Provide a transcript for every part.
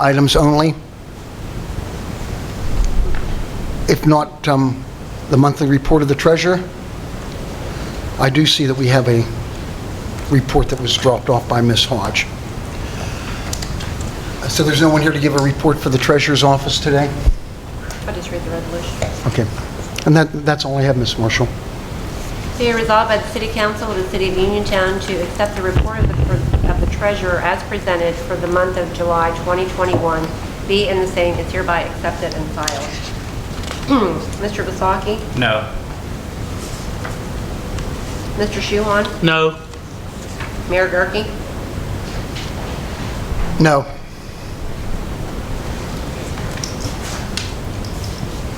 items only? If not, um, the monthly report of the treasurer? I do see that we have a report that was dropped off by Ms. Hodge. So there's no one here to give a report for the treasurer's office today? I'll just read the resolution. Okay. And that, that's all I have, Ms. Marshall. Be it resolved by the City Council of the City of Uniontown to accept the report of the of the treasurer as presented for the month of July 2021, be and the same is hereby accepted and filed. Mr. Vasaki? No. Mr. Shuhon? No. Mayor Gurke? No.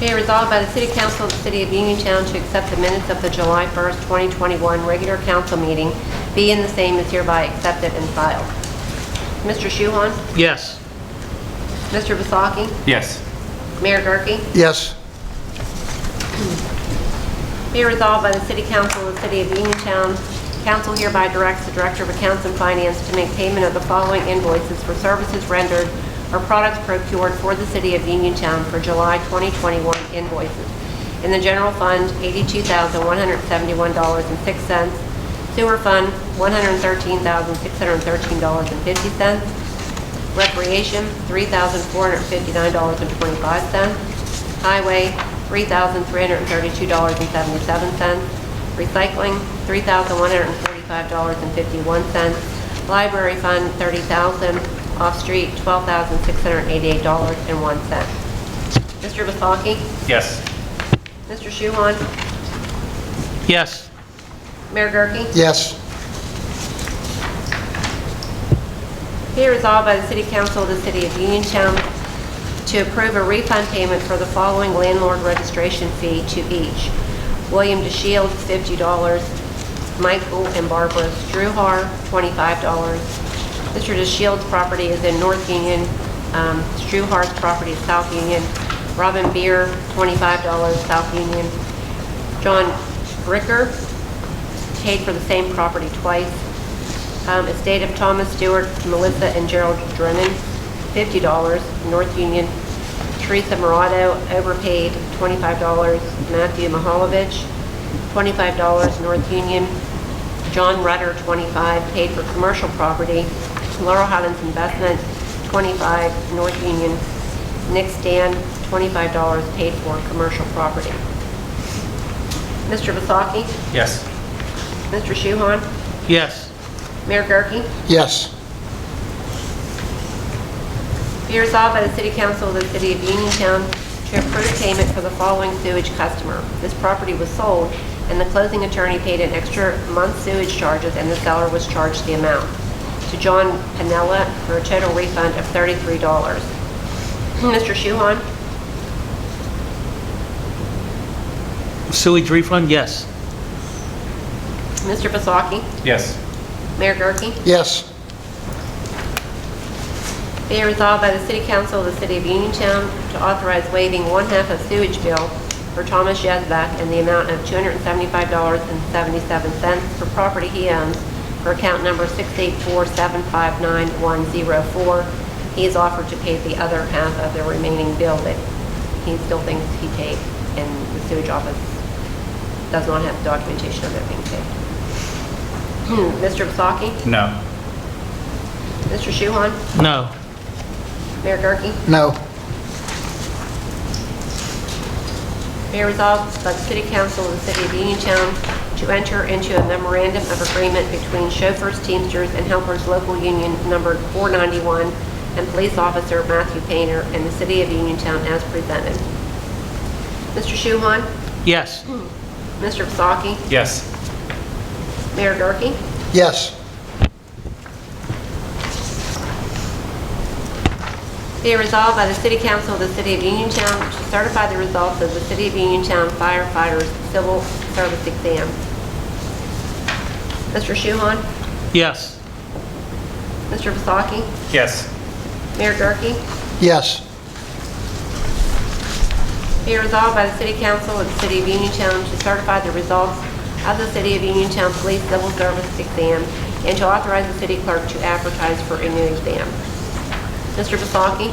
Be it resolved by the City Council of the City of Uniontown to accept the minutes of the July 1st, 2021 regular council meeting, be and the same is hereby accepted and filed. Mr. Shuhon? Yes. Mr. Vasaki? Yes. Mayor Gurke? Yes. Be resolved by the City Council of the City of Uniontown. Council hereby directs the Director of Accounts and Finance to make payment of the following invoices for services rendered or products procured for the City of Uniontown for July 2021 invoices. In the General Fund, $82,171.06. Sewer Fund, $113,613.50. Recreation, $3,459.25. Highway, $3,332.77. Recycling, $3,145.51. Library Fund, $30,000. Off-street, $12,688.01. Mr. Vasaki? Yes. Mr. Shuhon? Yes. Mayor Gurke? Yes. Be resolved by the City Council of the City of Uniontown to approve a refund payment for the following landlord registration fee to each. William DeShields, $50. Michael and Barbara Struhar, $25. Mr. DeShields' property is in North Union. um, Struhar's property is South Union. Robin Beer, $25, South Union. John Bricker, paid for the same property twice. Um, Estate of Thomas Stewart, Melissa and Gerald Drennan, $50, North Union. Teresa Morado, overpaid, $25, Matthew Mahalovich, $25, North Union. John Rutter, 25, paid for commercial property. Laurel Highlands Investment, 25, North Union. Nick Stan, $25, paid for commercial property. Mr. Vasaki? Yes. Mr. Shuhon? Yes. Mayor Gurke? Yes. Be resolved by the City Council of the City of Uniontown to approve payment for the following sewage customer. This property was sold, and the closing attorney paid an extra month's sewage charges, and the seller was charged the amount to John Panella for a total refund of $33. Mr. Shuhon? Sewage refund? Yes. Mr. Vasaki? Yes. Mayor Gurke? Yes. Be it resolved by the City Council of the City of Uniontown to authorize waiving one half of sewage bill for Thomas Yezbak in the amount of $275.77 for property he owns for account number 684759104. He has offered to pay the other half of the remaining bill that he still thinks he paid, and the sewage office does not have documentation of it being paid. Hmm, Mr. Vasaki? No. Mr. Shuhon? No. Mayor Gurke? No. Be it resolved by the City Council of the City of Uniontown to enter into a memorandum of agreement between chauffeurs, teamsters, and helpers local union number 491 and police officer Matthew Painter and the City of Uniontown as presented. Mr. Shuhon? Yes. Mr. Vasaki? Yes. Mayor Gurke? Yes. Be it resolved by the City Council of the City of Uniontown to certify the results of the City of Uniontown firefighters civil service exam. Mr. Shuhon? Yes. Mr. Vasaki? Yes. Mayor Gurke? Yes. Be resolved by the City Council of the City of Uniontown to certify the results of the City of Uniontown Police Civil Service Exam and to authorize the city clerk to advertise for a new exam. Mr. Vasaki?